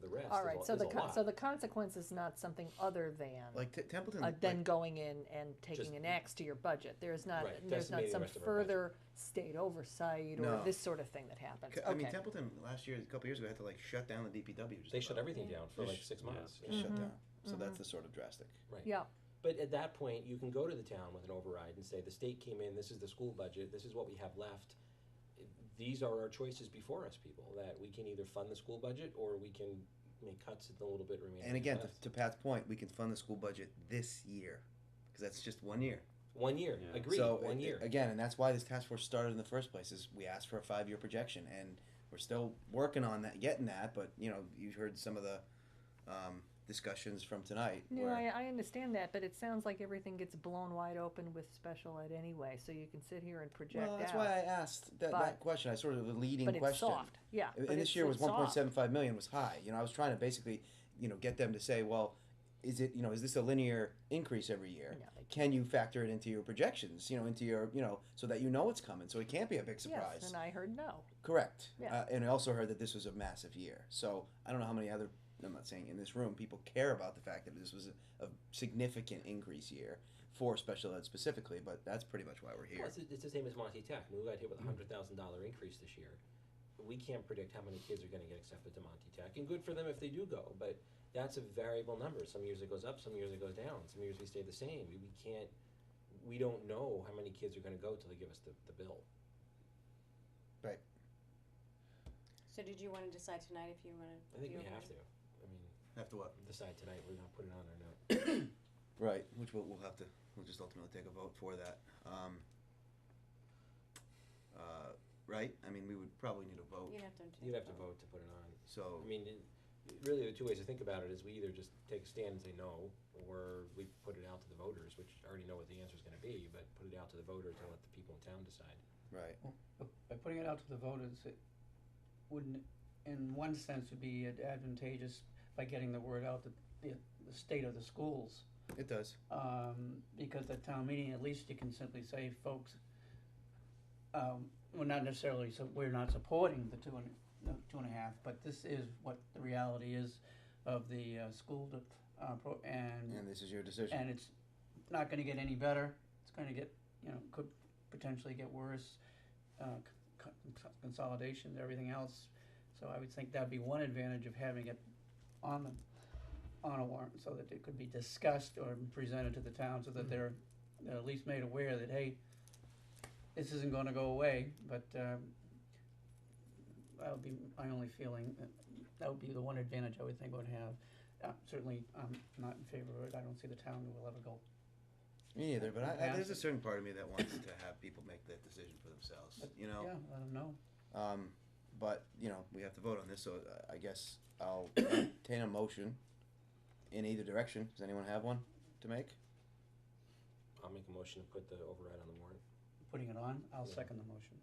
the rest All right, is a, so is the, a con- lot. so the consequence is not something other than, Like T- Templeton, uh, then like, going in and Just- taking an axe to your budget. There is not, Right, there's not decimating the some rest of our budget. further state oversight or No. this sort of thing that happens. c- I mean Okay. Templeton last year, a couple years ago, had to like shut down the DPW. Just they shut about. everything down for Just like sh- six yeah, months. just Mm-hmm. shut down. So that's the sort of drastic. Right. Yeah, But at that point, you can go to the town with an override and say, the state came in, this is the school budget, this is what we have left. These are our choices before us, people, that we can either fund the school budget or we can make cuts at the little bit remaining. And again, to, left." to Pat's point, we can fund the school budget this year because that's just one year. One year, Yeah. agreed, so one a- year. again, and that's why this task force started in the first place. Is we asked for a five year projection, and we're still working on that, getting that. But you know, you heard some of the um, discussions from tonight. no, where, I, I understand that, but it sounds like everything gets blown wide open with special ed anyway, so you can sit here and project well, that's out. why I asked that, But- that question. I sort of the leading But it's question. soft, yeah. And- but and it's- this year was it's soft. 1.75 million was high. You know, I was trying to basically, you know, get them to say, well, is it, you know, is this a linear increase every year? No, they Can you factor it into your projections? You know, into your, you know, so that you know it's coming, so it can't be a big surprise. Yes, and I heard no. Correct. Yeah. Uh, and I also heard that this was a massive year. So I don't know how many other. I'm not saying in this room people care about the fact that this was a, a significant increase year for special ed specifically, but that's pretty much why we're here. Well, it's, it's the same as Monty Tech. I mean, we got hit with a hundred thousand dollar increase this year. We can't predict how many kids are going to get accepted to Monty Tech, and good for them if they do go. But that's a variable number. Some years it goes up, some years it goes down, some years we stay the same. We, we can't. We don't know how many kids are going to go till they give us the, the bill. So did you wanna decide tonight if you wanna? I think do we it? have to. I mean, After what? decide tonight. We're not putting it on or not. Right, which we'll, we'll have to, we'll just ultimately take a vote for that. Um, uh, right? I mean, we would probably need a vote. You'd have to. take You'd have to a vote to put it on. So, I mean, it, really, the two ways to think about it is we either just take a stand and say no, or we put it out to the voters, which I already know what the answer is going to be, but put it out to the voters and let the people in town decide. right. But By putting it out to the voters, it wouldn't, in one sense, would be ad- advantageous by getting the word out that the, the state of the schools. It does. Um, because at town meeting, at least you can simply say, folks, um, well, not necessarily, so we're not supporting the two and, no, two and a half, but this is what the reality is of the, uh, school, dep- uh, pro- and And this is your decision. and it's not going to get any better. It's going to get, you know, could potentially get worse. Uh, c- c- consolidation, everything else. So I would think that'd be one advantage of having it on the on a warrant, so that it could be discussed or presented to the town, so that they're, they're at least made aware that hey, this isn't going to go away. But um, that would be my only feeling. That, that would be the one advantage I would think would have. Uh, certainly, I'm not in favor of it. I don't see the town will ever go. Me neither, but I, I, there's a Fantastic. certain part of me that wants to have people make that decision for themselves, you know? Yeah, let them know. Um, but, you know, we have to vote on this, so uh, I guess I'll entertain a motion in either direction. Does anyone have one to make? I'll make a motion to put the override on the warrant. Putting it on, I'll Yeah. second the motion.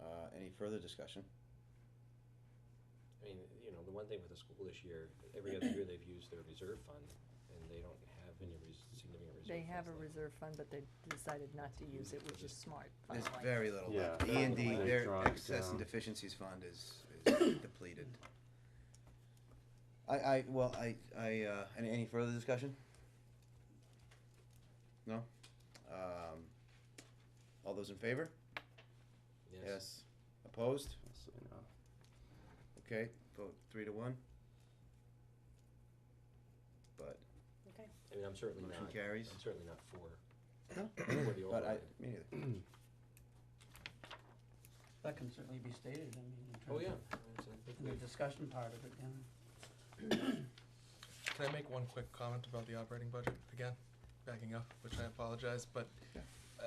Uh, any further discussion? I mean, you know, the one thing with the school this year, every other year they've used their reserve fund, and they don't have any res- significant reserve. They have a funds left. reserve fund, but they decided not to use it, which is smart. There's finally. very little Yeah, left. very E and D, little left. their Draw it excess and down. deficiencies fund is, is depleted. I, I, well, I, I, uh, any, any further discussion? No? Um, all those in favor? Yes. Yes. Opposed? So, you know, Okay, vote three to one. But, I mean, I'm certainly Motion not. carries. I'm certainly not for. No. For the but I, override. me neither. That can certainly be stated, I mean, in terms Oh, of yeah. I mean, I think The we- discussion part of it, yeah. Can I make one quick comment about the operating budget again? Backing up, which I apologize, but Yeah. uh,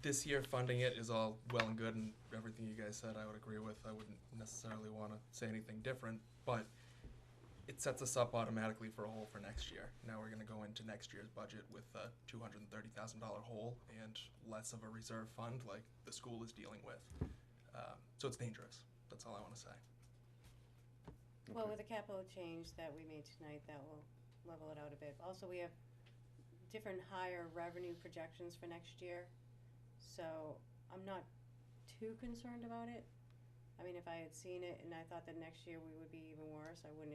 this year funding it is all well and good, and everything you guys said I would agree with. I wouldn't necessarily want to say anything different, but it sets us up automatically for a hole for next year. Now we're going to go into next year's budget with a $230,000 hole and less of a reserve fund like the school is dealing with. Um, so it's dangerous. That's all I want to say. Well, Okay. with the capital change that we made tonight, that will level it out a bit. Also, we have different higher revenue projections for next year, so I'm not too concerned about it. I mean, if I had seen it and I thought that next year we would be even worse, I wouldn't